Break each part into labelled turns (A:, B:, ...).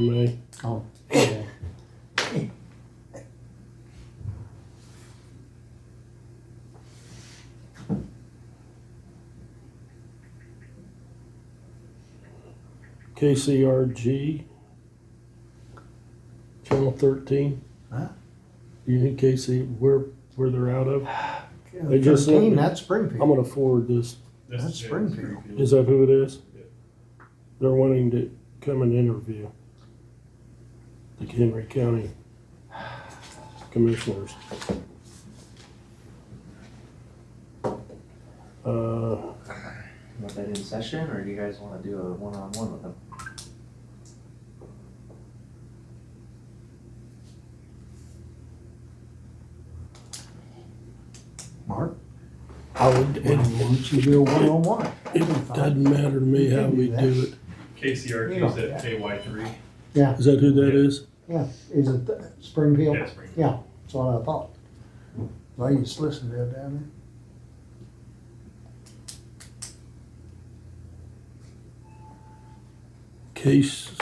A: May.
B: Oh, yeah.
A: KCRG, Channel 13.
B: Huh?
A: You think KC, where, where they're out of? They just sent
B: Thirteen,
A: me-
B: that's Springfield.
A: I'm gonna forward this.
C: This
B: That's
C: is it,
B: Springfield.
A: Is that who it is?
C: Yeah.
A: They're wanting to come and interview the Henry County Commissioners. Uh,
D: Want that in session, or do you guys wanna do a one-on-one with them?
B: Mark,
A: I would,
B: why don't you do a one-on-one?
A: It doesn't matter to me how we do it.
C: KCRG is at KY three.
B: Yeah,
A: Is that who that is?
B: yeah, is it th- Springfield?
C: Yeah, Springfield.
B: Yeah, that's what I thought. Well, you just listen to it down
A: Case,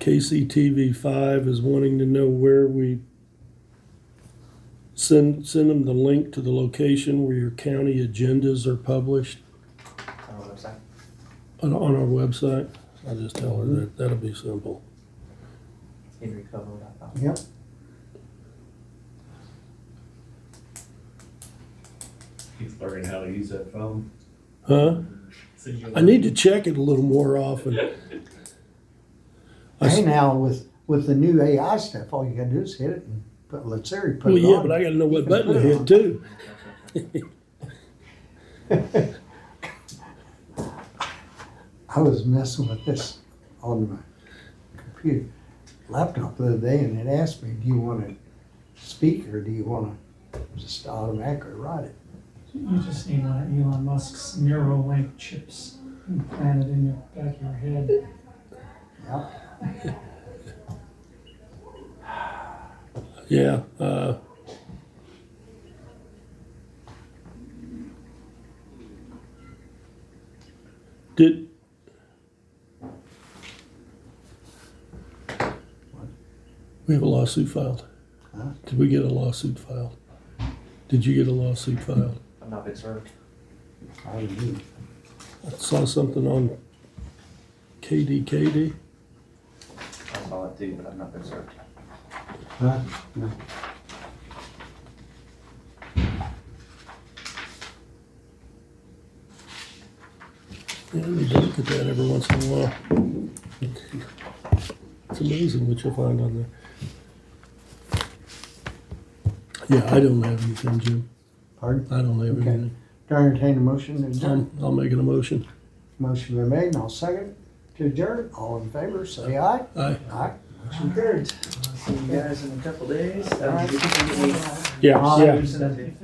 A: KCTV five is wanting to know where we send, send them the link to the location where your county agendas are published
D: On the website?
A: on, on our website. I'll just tell her that, that'll be simple.
D: henrycovo.com.
B: there. Yep,
C: He's learning how to use that phone.
A: Huh?
C: So you-
A: I need to check it a little more often. I s-
B: hey now, with, with the new AI stuff, all you gotta do is hit it and put, let Siri put it
A: Well,
B: on.
A: yeah, but I gotta know what button to hit too.
B: I was messing with this on my computer, laptop the other day, and it asked me, do you want to speak or do you want to just automatically write it?
E: You just need one of uh, Elon Musk's Neuralink chips implanted in the back of your head.
B: Yeah,
A: Yeah, uh. Did. We have a lawsuit filed.
B: Huh?
A: Did we get a lawsuit filed? Did you get a lawsuit filed?
D: I'm not big served.
B: I do.
A: I saw something on KDKD.
D: I saw it too, but I'm not big served.
B: Huh? No.
A: Yeah, we do look at that every once in a while. It's amazing what you'll find on there. Yeah, I don't have anything, Jim.
B: Pardon?
A: I don't have
B: Okay.
A: anything.
B: Do I entertain a motion to adjourn?
A: I'm, I'll make an emotion.
B: Motion been made, and I'll second to adjourn. All in favor, say aye.
A: I,
B: Aye.
D: Motion carried. I'll See you guys in a couple days. Have a good evening.
A: yeah,
B: Aye.
A: yeah.
D: Send it to you.